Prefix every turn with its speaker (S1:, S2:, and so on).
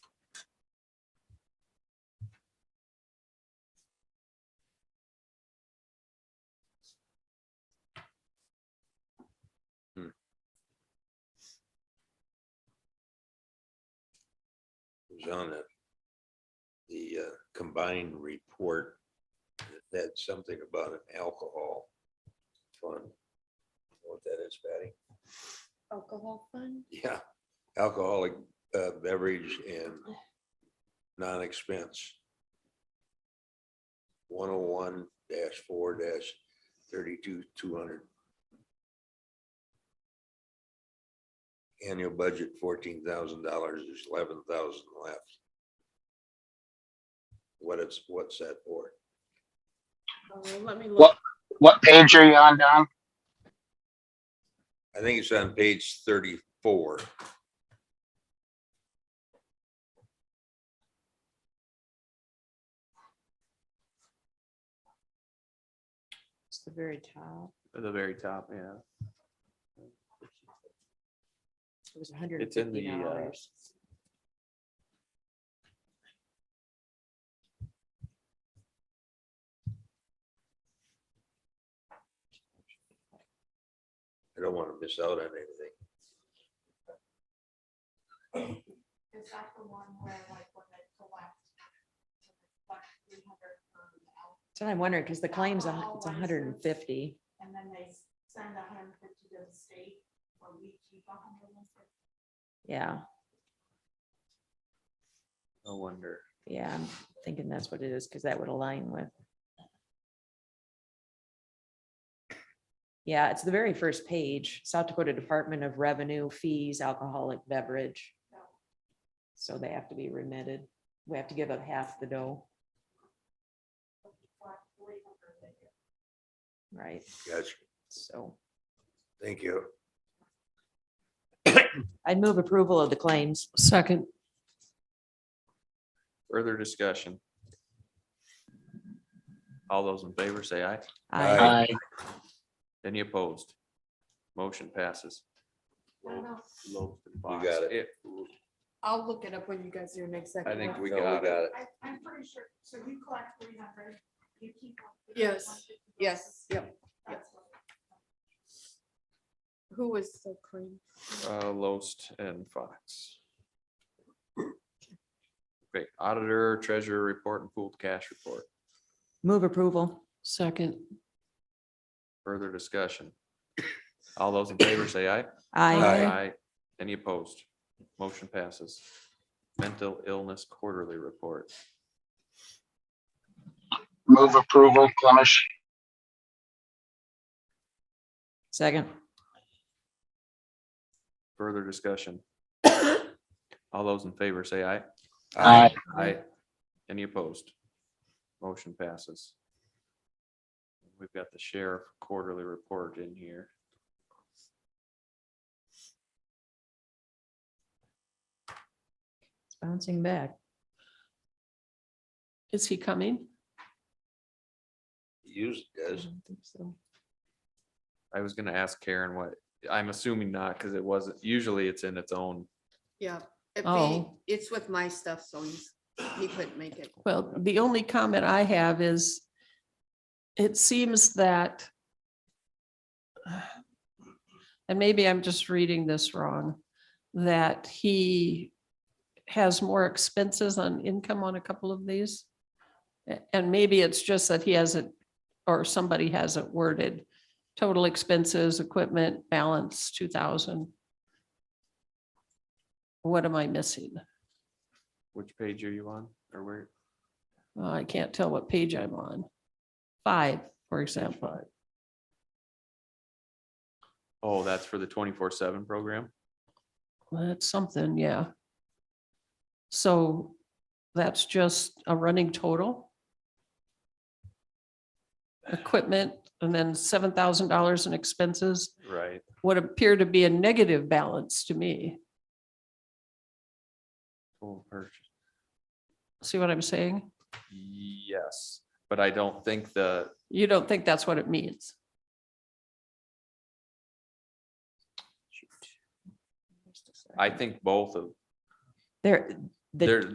S1: was on it. The uh, combined report that had something about an alcohol fund. Know What that is, Patty?
S2: Alcohol fund?
S1: Yeah, alcoholic uh, beverage and non-expense. One oh one dash four dash thirty-two, two hundred. Annual budget fourteen thousand dollars, there's eleven thousand left. What it's, what's that for?
S2: Oh, let me
S3: What?
S2: look.
S3: What page are you on, Don?
S1: I think it's on page thirty-four.
S2: It's the very top.
S4: At the very top, yeah.
S2: It was hundred and
S4: It's in
S2: fifty
S4: the, uh,
S2: dollars.
S1: I don't want to miss out on anything.
S5: Is that the one where like when they collect? like, 300 per mouth,
S2: So I'm wondering, because the claim's, a hu- it's
S5: Alcohol
S2: hundred and fifty.
S5: And then they send hundred and fifty to the state or we keep hundred and fifty.
S2: Yeah,
S4: No wonder.
S2: yeah, I'm thinking that's what it is, because that would align with. Yeah, it's the very first page, South Dakota Department of Revenue Fees Alcoholic Beverage. So they have to be remitted. We have to give up half the dough,
S5: but we collect 300 a
S2: right?
S5: year.
S1: Gotcha.
S2: So
S1: Thank you.
S2: I'd move approval of the claims.
S6: Second,
S4: Further discussion. All those in favor say aye.
S2: Uh,
S1: Aye.
S3: Hi.
S4: Any opposed? Motion passes.
S5: I don't know.
S4: You
S1: got it.
S6: I'll look it up when you guys do your next
S4: I
S6: second.
S4: think we
S1: No,
S4: got it.
S5: I, I'm pretty sure, so you collect three hundred, you keep. 150, 150
S6: Yes,
S5: goes
S6: Yes,
S5: to-
S6: yep.
S5: That's what-
S6: Who was the claim?
S4: Uh, Loest and Fox. Okay, auditor, treasurer report and pooled cash report.
S2: Move approval.
S6: Second,
S4: Further discussion. All those in favor say aye.
S2: Aye.
S6: Aye.
S4: Any opposed? Motion passes. Mental illness quarterly report.
S3: Move approval, Clemish.
S2: Second.
S4: Further discussion. All those in favor say aye.
S3: Aye.
S4: Aye. Any opposed? Motion passes. We've got the sheriff quarterly report in here.
S2: It's bouncing back.
S6: is he coming?
S1: Use it,
S2: I
S1: does.
S2: don't think so.
S4: I was gonna ask Karen what, I'm assuming not, because it wasn't, usually it's in its own.
S7: Yeah, if he,
S2: Oh.
S7: it's with my stuff, so he's, he couldn't make it.
S6: Well, the only comment I have is it seems that and maybe I'm just reading this wrong, that he has more expenses on income on a couple of these. A- And maybe it's just that he hasn't, or somebody hasn't worded total expenses, equipment, balance, two thousand. What am I missing?
S4: Which page are you on or where?
S6: Well, Uh, I can't tell what page I'm on. Five, for example.
S4: Oh, that's for the twenty-four seven program?
S6: Well, That's something, yeah. So that's just a running total? Equipment and then seven thousand dollars in expenses,
S4: Right.
S6: what appear to be a negative balance to me.
S4: Total purchase.
S6: See what I'm saying?
S4: Yes, but I don't think the,
S6: You don't think that's what it means?
S4: I think both of,
S2: There, the
S4: there,